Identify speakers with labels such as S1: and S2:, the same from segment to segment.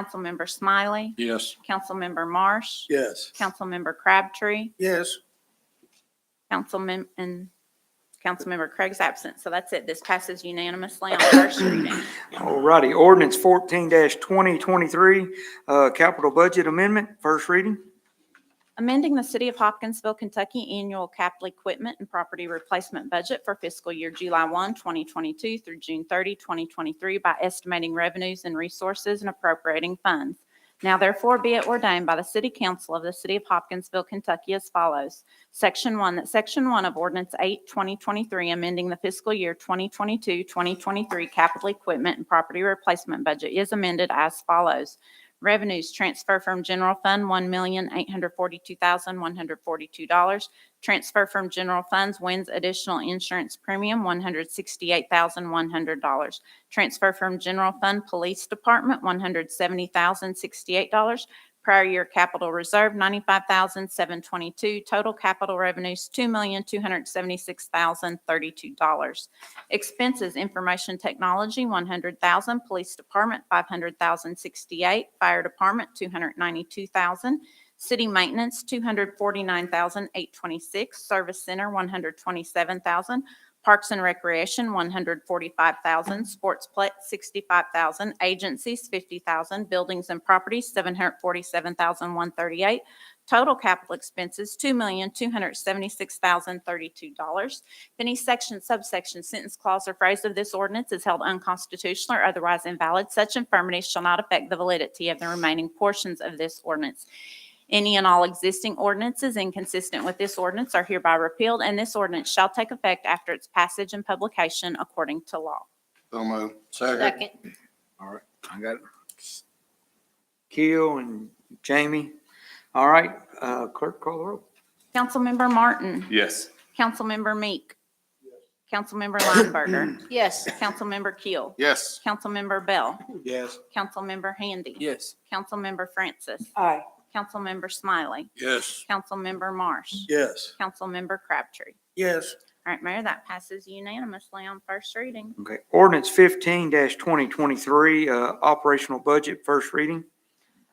S1: Councilmember Smiley,
S2: Yes.
S1: Councilmember Marsh,
S2: Yes.
S1: Councilmember Crabtree,
S2: Yes.
S1: Councilmem, and Councilmember Craig's absent. So that's it. This passes unanimously on first reading.
S3: All righty, ordinance fourteen twenty twenty-three, uh, capital budget amendment, first reading.
S1: Amending the City of Hopkinsville, Kentucky annual capital equipment and property replacement budget for fiscal year July 1, 2022 through June 30, 2023 by estimating revenues and resources and appropriating funds. Now therefore be it ordained by the City Council of the City of Hopkinsville, Kentucky as follows. Section 1, that Section 1 of Ordinance 8, 2023, amending the fiscal year 2022, 2023 capital equipment and property replacement budget is amended as follows. Revenues transfer from general fund, one million, eight hundred forty-two thousand, one hundred forty-two dollars. Transfer from general funds wins additional insurance premium, one hundred sixty-eight thousand, one hundred dollars. Transfer from general fund, police department, one hundred seventy thousand, sixty-eight dollars. Prior year capital reserve, ninety-five thousand, seven twenty-two. Total capital revenues, two million, two hundred seventy-six thousand, thirty-two dollars. Expenses, information technology, one hundred thousand, police department, five hundred thousand sixty-eight, fire department, two hundred ninety-two thousand, city maintenance, two hundred forty-nine thousand eight twenty-six, service center, one hundred twenty-seven thousand, parks and recreation, one hundred forty-five thousand, sportsplex, sixty-five thousand, agencies, fifty thousand, buildings and properties, seven hundred forty-seven thousand one thirty-eight, total capital expenses, two million two hundred seventy-six thousand thirty-two dollars. If any section, subsection, sentence, clause, or phrase of this ordinance is held unconstitutional or otherwise invalid, such infirmities shall not affect the validity of the remaining portions of this ordinance. Any and all existing ordinances inconsistent with this ordinance are hereby repealed, and this ordinance shall take effect after its passage and publication according to law.
S2: So moved. Second.
S4: Second,
S3: All right, I got it. Keel and Jamie. All right, uh, clerk call the roll.
S1: Councilmember Martin.
S5: Yes.
S1: Councilmember Meek. Councilmember Lineberger.
S4: yes,
S1: Councilmember Keel.
S2: Yes.
S1: Councilmember Bell.
S2: Yes.
S1: Councilmember Handy.
S5: Yes.
S1: Councilmember Francis.
S6: aye,
S1: Councilmember Smiley.
S2: Yes.
S1: Councilmember Marsh.
S2: Yes.
S1: Councilmember Crabtree.
S2: Yes.
S1: All right, Mayor, that passes unanimously on first reading.
S3: Okay, ordinance fifteen twenty twenty-three, uh, operational budget, first reading.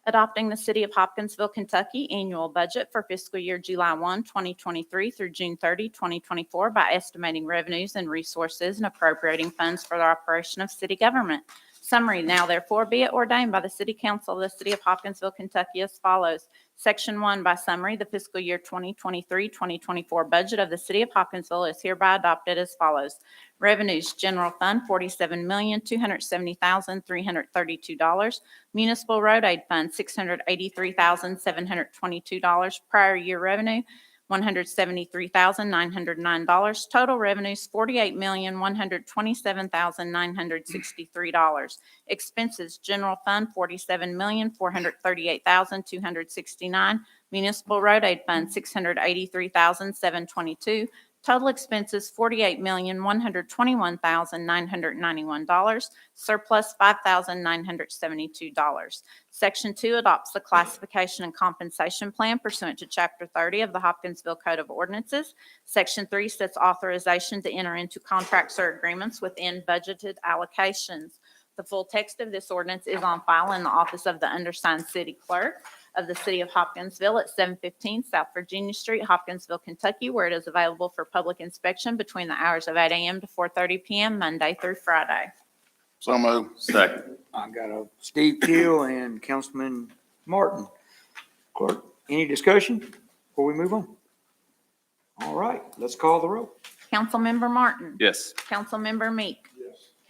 S1: Adopting the City of Hopkinsville, Kentucky annual budget for fiscal year July 1, 2023 through June 30, 2024 by estimating revenues and resources and appropriating funds for the operation of city government. Summary, now therefore be it ordained by the City Council of the City of Hopkinsville, Kentucky as follows. Section 1 by summary, the fiscal year 2023-2024 budget of the City of Hopkinsville is hereby adopted as follows. Revenues, general fund, $47,270,332. Municipal Road Aid Fund, $683,722. Prior year revenue, $173,909. Total revenues, $48,127,963. Expenses, General Fund, $47,438,269. Municipal Road Aid Fund, $683,722. Total expenses, $48,121,991. Surplus, $5,972. Section 2 adopts the classification and compensation plan pursuant to Chapter 30 of the Hopkinsville Code of Ordinances. Section 3 sets authorization to enter into contracts or agreements within budgeted allocations. The full text of this ordinance is on file in the office of the undersigned city clerk of the city of Hopkinsville at 715 South Virginia Street, Hopkinsville, Kentucky, where it is available for public inspection between the hours of 8 a.m. to 4:30 p.m., Monday through Friday.
S2: So moved.
S5: Second.
S3: I got a Steve Keel and Councilman Martin. Clerk, any discussion before we move on? All right, let's call the roll.
S1: Councilmember Martin.
S5: Yes.
S1: Councilmember Meek.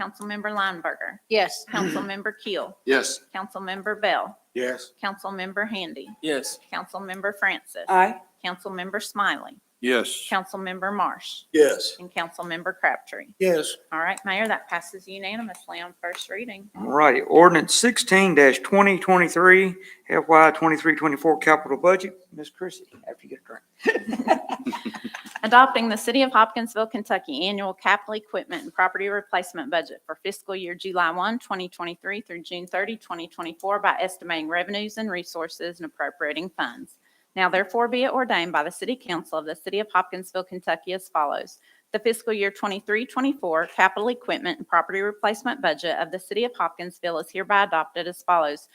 S1: Councilmember Lineberger.
S4: yes,
S1: Councilmember Keel.
S2: Yes.
S1: Councilmember Bell.
S2: Yes.
S1: Councilmember Handy.
S5: Yes.
S1: Councilmember Francis.
S6: aye,
S1: Councilmember Smiley.
S2: Yes.
S1: Councilmember Marsh.
S2: Yes.
S1: And Councilmember Crabtree.
S2: Yes.
S1: All right, Mayor, that passes unanimously on first reading.
S3: All righty, ordinance sixteen twenty twenty-three, FY twenty-three, twenty-four capital budget. Ms. Chrissy, after you get a drink.
S1: Adopting the City of Hopkinsville, Kentucky Annual Capital Equipment and Property Replacement Budget for fiscal year July 1, 2023 through June 30, 2024 by estimating revenues and resources and appropriating funds. Now therefore be it ordained by the City Council of the City of Hopkinsville, Kentucky as follows. the fiscal year 23-24 capital equipment and property replacement budget of the city of Hopkinsville is hereby adopted as follows.